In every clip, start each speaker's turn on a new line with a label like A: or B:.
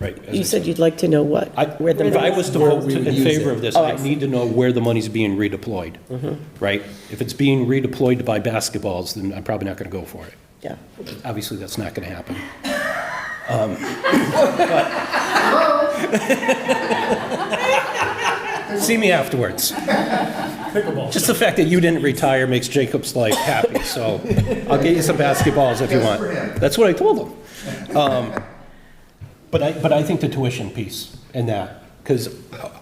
A: right. as I
B: You said you'd like to know what?
A: I-
B: where the
A: If I
B: money's-
A: was to vote
C: we
A: to-
C: would
A: in
C: use
A: favor
C: it.
A: of this,
B: Oh, I Mm-hmm.
A: I'd
B: see.
A: need to know where the money's being redeployed, right? If it's being redeployed to buy basketballs, then I'm probably not going to go for it.
B: Yeah.
A: Obviously, that's not going to happen. Um, but- See me afterwards. Just the fact that you didn't retire makes Jacob's life happy, so I'll get you some basketballs if you want. That's what I told him. Um, But I, but I think the tuition piece in that, because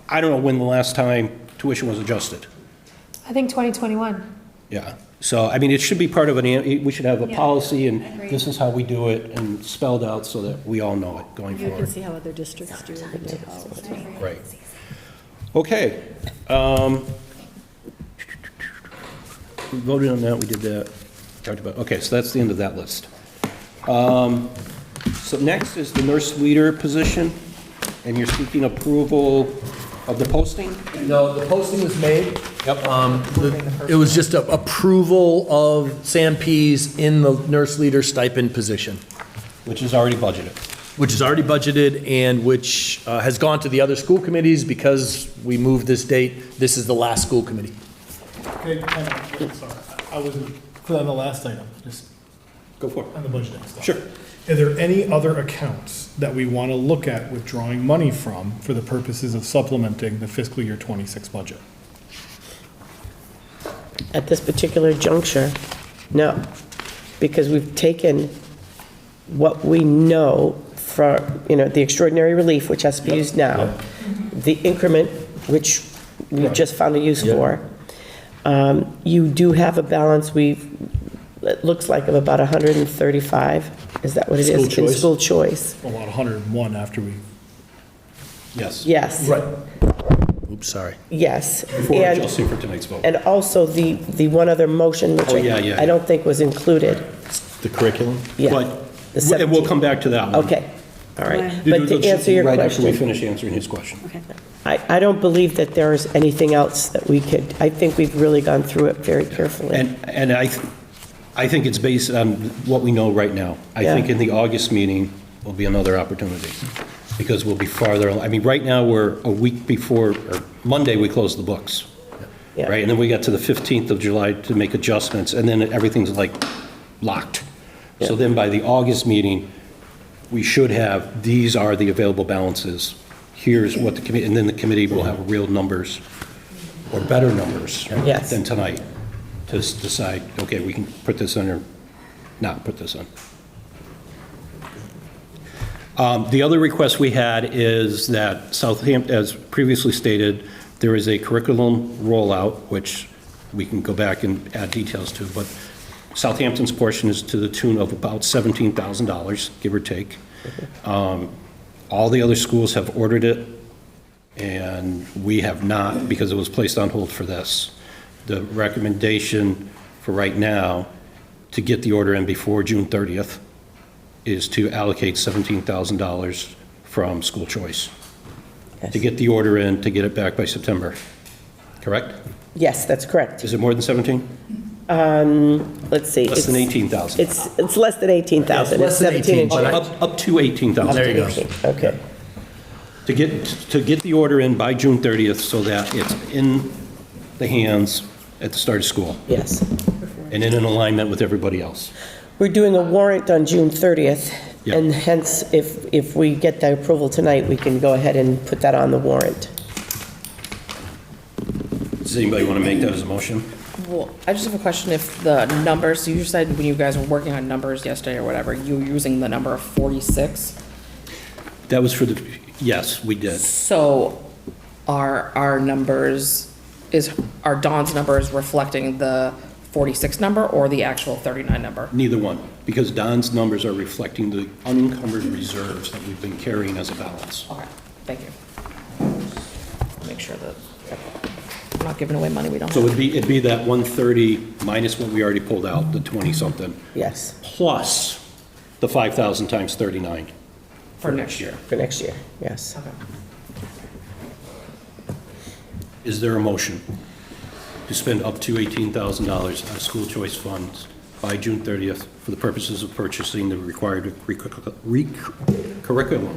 A: I don't know when the last time tuition was adjusted.
D: I think 2021.
A: Yeah. So, I mean, it should be part of an, an- we should have a
E: Yeah,
A: policy and
E: agreed.
A: this is how we do it and spelled out so that we all know it going
E: You can
A: forward.
E: see how other districts do it. and how it's done.
A: Right. Okay. Um, We voted on that, we did that, talked about, okay, so that's the end of that list. Um, So next is the nurse leader position, and you're seeking approval of the posting?
C: No, the posting was made. Yep. Um, the- It was just a approval of Sam Pease in the nurse leader stipend position,
A: Which is already budgeted.
C: which is already budgeted and which uh, has gone to the other school committees because we moved this date. This is the last school committee.
F: Okay, hang on, sorry, I wasn't, put on the last item, just
A: Go for
F: on the budgeting stuff.
A: Sure.
F: Are there any other accounts that we want to look at withdrawing money from for the purposes of supplementing the fiscal year twenty-six budget?
B: At this particular juncture, no, because we've taken what we know for, you know, the extraordinary relief, which has to be used now, the increment, which we just found a use for. Um, You do have a balance, we've, it looks like of about 135, is that what it is?
C: School
B: In
C: choice.
B: school choice,
F: About hundred and one after we,
A: Yes.
B: yes.
C: Oops, sorry.
B: Yes.
A: Before
B: And-
A: adjusting for tonight's vote.
B: And also the, the one other motion, which
A: Oh, yeah,
B: I-
A: yeah, Mm-hmm.
B: I don't think was included.
C: The curriculum?
B: Yeah. The
A: But, and we'll come back to that one.
B: Okay, all right.
E: Right.
B: But to answer your
A: Right after we
B: question,
A: finish answering his question.
E: Okay.
B: I, I don't believe that there is anything else that we could, I think we've really gone through it very carefully.
A: And, and I, th- I think it's based on what we know right now. I
B: Yeah.
A: think in the August meeting will be another opportunity, because we'll be farther, al- I mean, right now, we're a week before, or Monday, we close the books,
B: Yeah.
A: right? And then we got to the 15th of July to make adjustments, and then everything's like locked. So then by the August meeting, we should have, these are the available balances, here's what the committee, and then the committee will have real numbers, or better numbers
B: Yes.
A: than tonight, to s- decide, okay, we can put this on or not put this on. Um, The other request we had is that Southampton, as previously stated, there is a curriculum rollout, which we can go back and add details to, but Southampton's portion is to the tune of about $17,000, give or take. Um, All the other schools have ordered it, and we have not, because it was placed on hold for this. The recommendation for right now, to get the order in before June 30th, is to allocate $17,000 from school choice, to get the order in, to get it back by September, correct?
B: Yes, that's correct.
A: Is it more than 17?
B: Let's see.
A: Less than
B: it's-
A: 18,000?
B: It's, it's less than 18,000.
C: Yes,
B: It's
C: less than
B: 17 and
C: but I-
A: Up up to 18,000.
C: There you go.
B: change. Okay,
A: To get, to get the order in by June 30th so that it's in the hands at the start of school
B: yes.
A: and in an alignment with everybody else.
B: We're doing a warrant on June 30th,
A: Yeah.
B: and hence, if, if we get the approval tonight, we can go ahead and put that on the warrant.
A: Does anybody want to make that as a motion?
G: Well, I just have a question if the numbers, you said when you guys were working on numbers yesterday or whatever, you were using the number of 46.
A: That was for the, yes, we did.
G: So are our numbers, is, are Dawn's numbers reflecting the 46 number or the actual 39 number?
A: Neither one, because Don's numbers are reflecting the unencumbered reserves that we've been carrying as a balance.
G: Okay, thank you. Make sure that, I'm not giving away money we don't
A: So
G: have.
A: it'd be, it'd be that 130 minus what we already pulled out, the 20-something,
B: Yes,
A: plus the 5,000 times 39.
G: For next year.
B: for next year, yes.
G: Okay.
A: Is there a motion to spend up to $18,000 out of school choice funds by June 30th for the purposes of purchasing the required recur- recur- curriculum